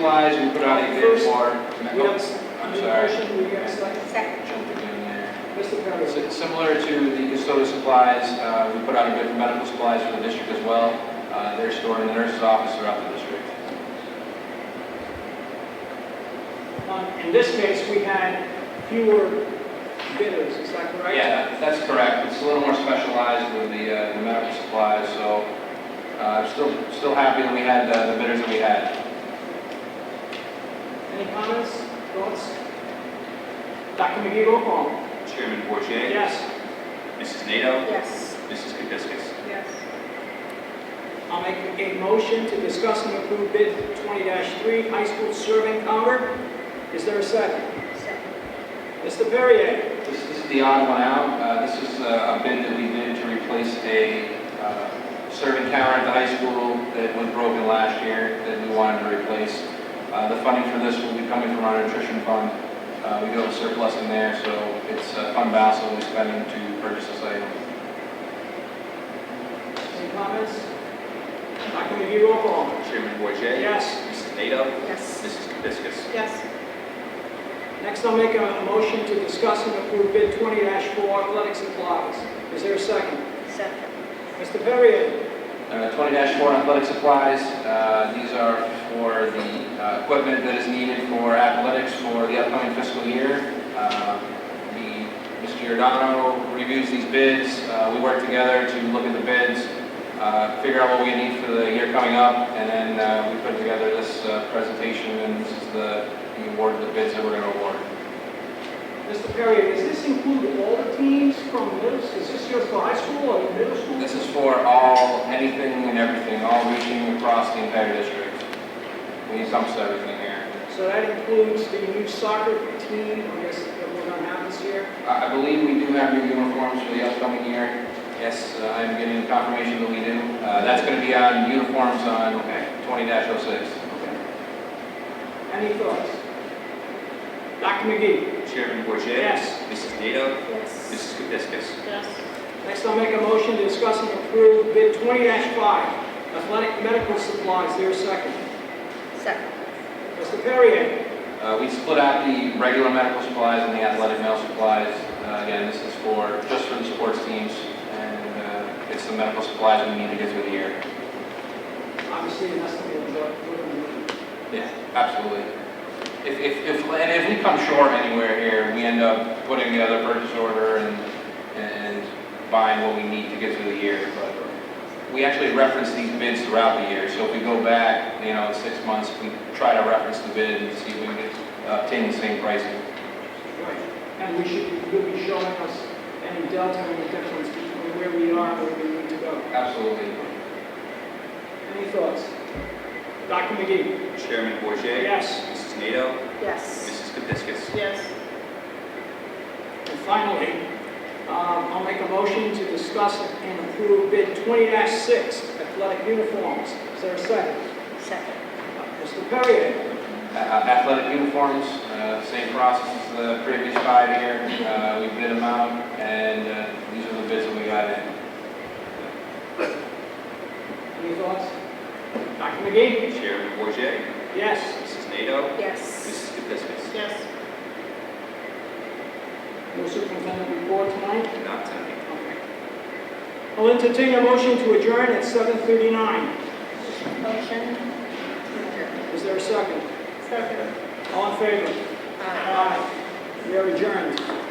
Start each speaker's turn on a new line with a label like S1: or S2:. S1: wise, we put out an executive order.
S2: We have-
S1: I'm
S2: Any
S1: sorry.
S2: motion, we have a second.
S3: Second.
S1: Jumped the gun there.
S2: Mr. Perry.
S1: Si- Similar to the Custodial supplies, uh, we put out a bid for medical supplies for the district as well. Uh, They're stored in the nurse's office throughout the district.
S2: Um, In this case, we had fewer bidders, is that correct?
S1: Yeah, that- that's correct. It's a little more specialized with the uh, the medical supplies, so uh, still, still happy that we had uh, the bidders that we had.
S2: Any comments, thoughts? Dr. McGee, roll call.
S4: Chairman Bourget,
S2: Yes.
S4: Mrs. NATO,
S3: Yes.
S4: Mrs. Kapiskas.
S3: Yes.
S2: I'll make a motion to discuss and approve bid 20-3, high school serving cover. Is there a second?
S3: Second.
S2: Mr. Perrier.
S1: This this is the odd one out. Uh, This is uh, a bid that we did to replace a uh, serving counter at the high school that was broken last year that we wanted to replace. Uh, The funding for this will be coming from our nutrition fund. Uh, We do have a surplus in there, so it's uh, fund balance that we're spending to purchase this item.
S2: Any comments? Dr. McGee, roll call.
S4: Chairman Bourget,
S2: Yes.
S4: Mrs. NATO,
S3: Yes.
S4: Mrs. Kapiskas.
S3: Yes.
S2: Next, I'll make a motion to discuss and approve bid 20-4, athletic supplies. Is there a second?
S3: Second.
S2: Mr. Perrier.
S1: Uh, Twenty four athletic supplies, Uh, these are for the uh, equipment that is needed for athletics for the upcoming fiscal year. Uh, the- Mr. Giordano reviews these bids, Uh, we work together to look at the bids, uh, figure out what we need for the year coming up, and then uh, we put together this uh, presentation, and this is the the award of the bids that we're going to award.
S2: Mr. Perry, does this include all the teams from middle, is this just for high school or middle school?
S1: This is for all, anything and everything, all reaching across the entire district. We encompass everything here.
S2: So that includes the new soccer team, I guess, that we're gonna have this year?
S1: I I believe we do have new uniforms for the upcoming year. Yes, uh, I'm getting confirmation that we do. Uh, That's going to be on uniforms on 20-06.
S2: Any thoughts? Dr. McGee?
S4: Chairman Bourget,
S2: Yes.
S4: Mrs. NATO,
S3: Yes.
S4: Mrs. Kapiskas.
S3: Yes.
S2: Next, I'll make a motion to discuss and approve bid twenty five, athletic medical supplies, there's a second.
S3: Second.
S2: Mr. Perry,
S1: Uh, We split out the regular medical supplies and the athletic male supplies. Uh, Again, this is for, just for the sports teams, and uh, it's the medical supplies we need to get through the year.
S2: obviously, an estimate of what we're gonna do.
S1: Yeah, absolutely. If, if, if, and if we come short anywhere here, we end up putting together a purchase order and, and buying what we need to get through the year, but we actually reference these bids throughout the year, so if we go back, you know, in six months, we try to reference the bid and see if we can uh, obtain the same pricing.
S2: Right. And we should, you'll be showing us any delta and difference between where we are and where we need to go.
S1: Absolutely.
S2: Any thoughts? Dr. McGee?
S4: Chairman Bourget,
S2: Yes.
S4: Mrs. NATO,
S3: Yes.
S4: Mrs. Kapiskas.
S3: Yes.
S2: And finally, um, I'll make a motion to discuss and approve bid 20-6 athletic uniforms. Is there a second?
S3: Second.
S2: Mr. Perrier?
S1: A- Athletic uniforms, uh, same process as the previous five year, Uh, we bid them out, and uh, these are the bids that we got in.
S2: Any thoughts? Dr. McGee?
S4: Chairman Bourget,
S2: Yes.
S4: Mrs. NATO,
S3: Yes.
S4: Mrs. Kapiskas.
S3: Yes.
S2: No superintendent report tonight?
S4: Not tonight.
S2: Okay. I'll entertain a motion to adjourn at 7:39.
S3: Motion.
S2: Is there a second?
S3: Second.
S2: All in favor?
S3: Aye.
S2: Aye. We are adjourned.